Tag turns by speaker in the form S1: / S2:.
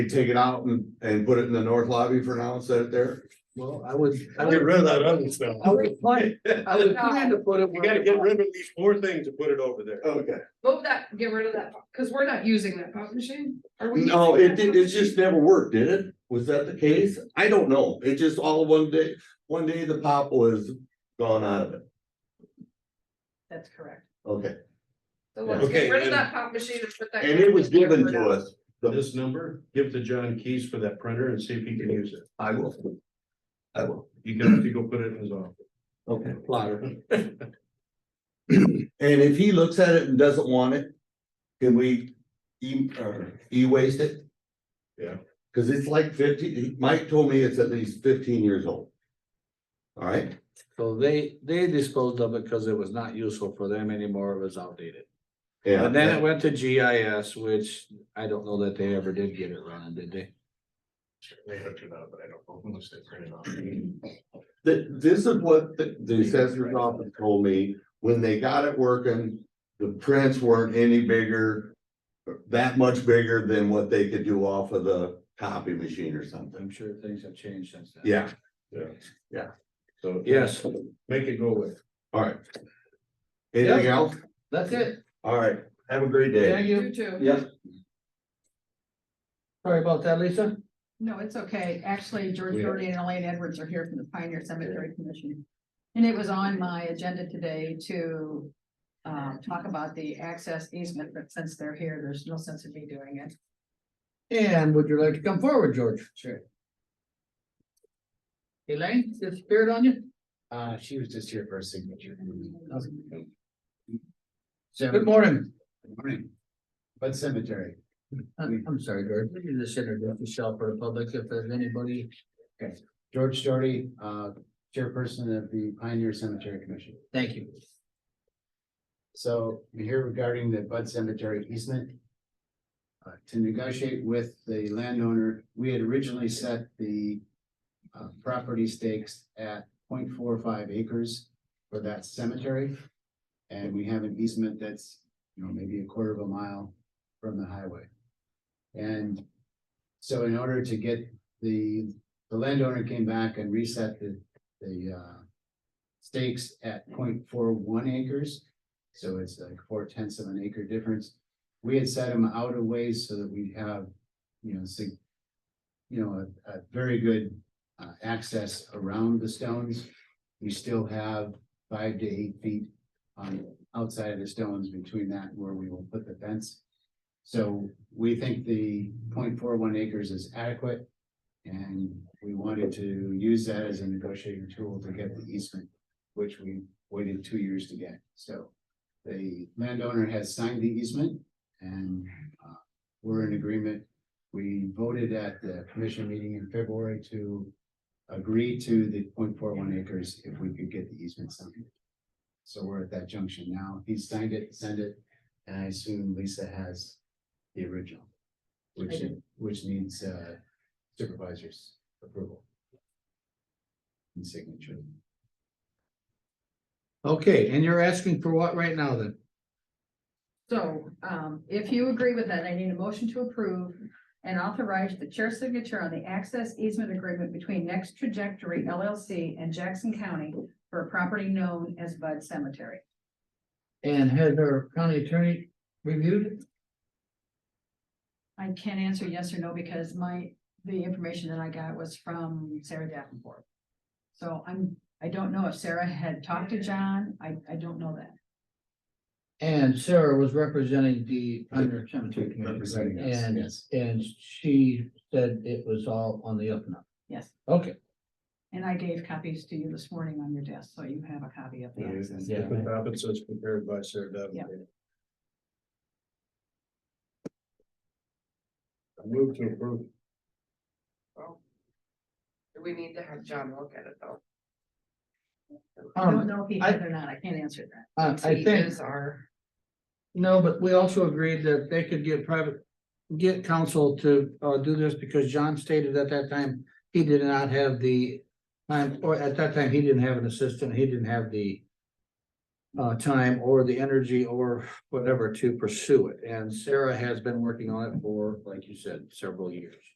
S1: You take it out and, and put it in the north lobby for now, and set it there?
S2: Well, I would, I
S3: Get
S2: would,
S3: rid of that other stuff.
S2: I would plan, I would plan to put it.
S3: You gotta get rid of these four things and put it over there.
S1: Okay.
S4: Move that, get rid of that, because we're not using that pop machine. Are we?
S1: No,
S4: using
S1: it
S4: that
S1: did,
S4: pop
S1: it just never worked, did it? Was that the case? I don't know. It just all one day, one day the pop was gone out of it.
S5: That's correct.
S1: Okay,
S4: machine? So let's
S3: Okay,
S4: get rid of
S3: and-
S4: that pop machine and put that.
S1: and it was given to us. The-
S3: This number, give to John Keys for that printer and see if he can use it.
S1: I will. I will.
S3: You can, if you go put it in his office.
S1: Okay. And if he looks at it and doesn't want it, can we e- or e-waste it?
S3: Yeah.
S1: Cause it's like fifty, Mike told me it's at least fifteen years old. All right,
S2: So they, they disposed of it because it was not useful for them anymore, it was outdated.
S1: yeah.
S2: And then it went to GIS, which I don't know that they ever did get it running, did they?
S3: They hooked it up, but I don't know unless they print it off.
S1: Th- this is what the, the assessor's office told me, when they got it working, the prints weren't any bigger. That much bigger than what they could do off of the copy machine or something.
S2: I'm sure things have changed since then.
S1: Yeah,
S3: So.
S2: Yes,
S3: Make it go away.
S1: all right. Anything else?
S2: that's it,
S1: All right, have a great day.
S2: thank
S4: You
S2: you,
S4: too.
S1: Yeah.
S2: sorry about that, Lisa.
S5: No, it's okay. Actually, George
S3: Yeah.
S5: Doherty and Elaine Edwards are here from the Pioneer Cemetery Commission. And it was on my agenda today to um, talk about the access easement, but since they're here, there's no sense in me doing it.
S2: And would you like to come forward, George?
S6: Sure.
S2: Elaine, is it spirit on you?
S6: Uh, she was just here for a signature.
S2: Good
S6: Good
S2: morning, Uh,
S6: morning. What cemetery?
S2: I'm, I'm sorry, George, we can just introduce yourself for the public if there's anybody.
S6: George Doherty, uh, chairperson of the Pioneer Cemetery Commission.
S2: Thank you.
S6: So we're here regarding the Bud Cemetery easement. Uh, to negotiate with the landowner, we had originally set the uh, property stakes at 0.45 acres for that cemetery. And we have an easement that's, you know, maybe a quarter of a mile from the highway. And so in order to get the, the landowner came back and reset the, the uh stakes at 0.41 acres. So it's like four tenths of an acre difference. We had set them out a ways so that we have, you know, sig- you know, a, a very good uh, access around the stones. We still have five to eight feet on outside of the stones between that and where we will put the fence. So we think the 0.41 acres is adequate. And we wanted to use that as a negotiating tool to get the easement, which we waited two years to get. So the landowner has signed the easement and uh, we're in agreement. We voted at the commission meeting in February to agree to the 0.41 acres if we could get the easement signed. So we're at that junction now. He signed it, sent it, and I assume Lisa has the original,
S5: I
S6: which,
S5: do.
S6: which needs uh, supervisor's approval and signature.
S2: Okay, and you're asking for what right now then?
S5: So um, if you agree with that, I need a motion to approve and authorize the chair signature on the access easement agreement between Next Trajectory LLC and Jackson County for a property known as Bud Cemetery.
S2: And has our county attorney reviewed it?
S5: I can't answer yes or no because my, the information that I got was from Sarah Davenport. So I'm, I don't know if Sarah had talked to John. I, I don't know that.
S2: And Sarah was representing the under cemetery committee, right?
S6: Representing us,
S2: and,
S6: yes.
S2: and she said it was all on the up and up.
S5: Yes.
S2: Okay,
S5: And I gave copies to you this morning on your desk, so you have a copy of the access.
S2: Yeah.
S3: At the top, it says prepared by Sarah Davenport. I Move to approve.
S4: Do we need to have John look at it though?
S5: I don't
S2: um,
S5: know if he
S2: I-
S5: did or not. I can't answer that.
S2: I, I
S4: He
S2: think,
S4: Is our,
S2: no, but we also agreed that they could get private, get counsel to, uh, do this because John stated at that time, he did not have the time, or at that time, he didn't have an assistant, he didn't have the uh, time or the energy or whatever to pursue it. And Sarah has been working on it for, like you said, several years.